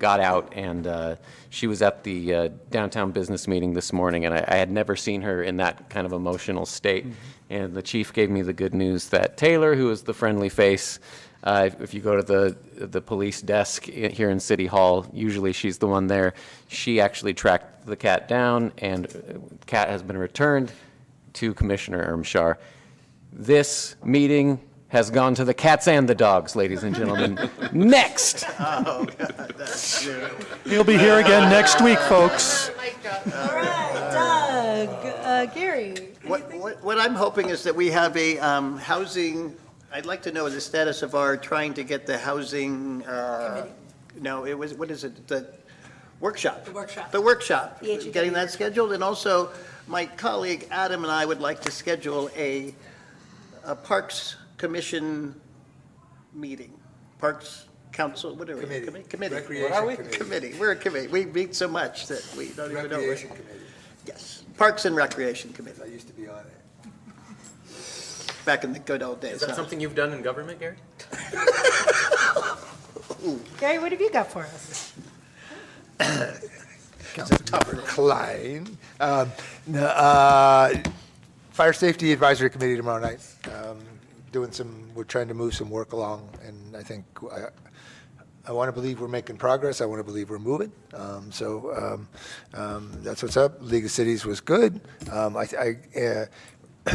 got out, and uh, she was at the uh, downtown business meeting this morning, and I, I had never seen her in that kind of emotional state. And the chief gave me the good news that Taylor, who is the friendly face, uh, if- if you go to the the police desk i- here in City Hall, usually she's the one there. She actually tracked the cat down, and uh, cat has been returned to Commissioner Ermshar. This meeting has gone to the cats and the dogs, ladies and gentlemen. Next. He'll be here again next week, folks. All right, Doug, uh, Gary. What, what what I'm hoping is that we have a um, housing, I'd like to know the status of our trying to get the housing, uh, no, it was, what is it, the workshop? The workshop. The workshop. The E HEW. Getting that scheduled, and also, my colleague Adam and I would like to schedule a a Parks Commission meeting, Parks Council, whatever. Commi- Committee. Recreation What are we? Committee. Committee, we're a committee, we meet so much that we don't even know. where- Recreation Committee, Yes, Parks and Recreation Committee. I used to be on it. back in the good old days. Is that huh? something you've done in government, Gary? Gary, what have you got for us? Councilmember Klein. Um, no, uh, Fire Safety Advisory Committee tomorrow night, um, doing some, we're trying to move some work along, and I think, uh, I, I want to believe we're making progress, I want to believe we're moving, um, so, um, um, that's what's up. League of Cities was good. Um, I, I, uh,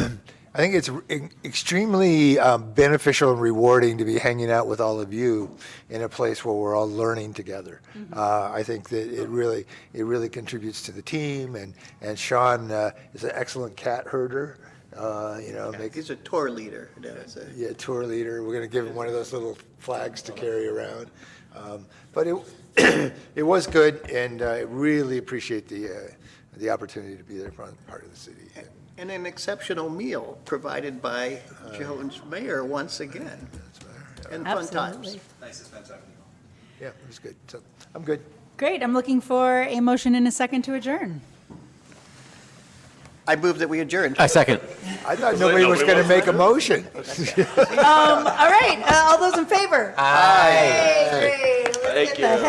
I think it's e- extremely um, beneficial and rewarding to be hanging out with all of you in a place where we're all learning together. Uh, I think that it really it really contributes to the team, and and Sean uh, is an excellent cat herder. Uh, you know, make, He's a tour leader. you know, it's a- yeah, tour leader. We're gonna give him one of those little flags to carry around. Um, But it, it was good, and uh, I really appreciate the, uh, the opportunity to be there for part of the city. And And an exceptional meal provided by uh, Jones Mayor once again, that's about it. and fun times. Absolutely. Yeah, it was good. So, I'm good. Great, I'm looking for a motion in a second to adjourn. I move that we adjourn. I second. I thought nobody was gonna make a motion. Um, all right, uh, all those in favor? Aye. Great, let's get the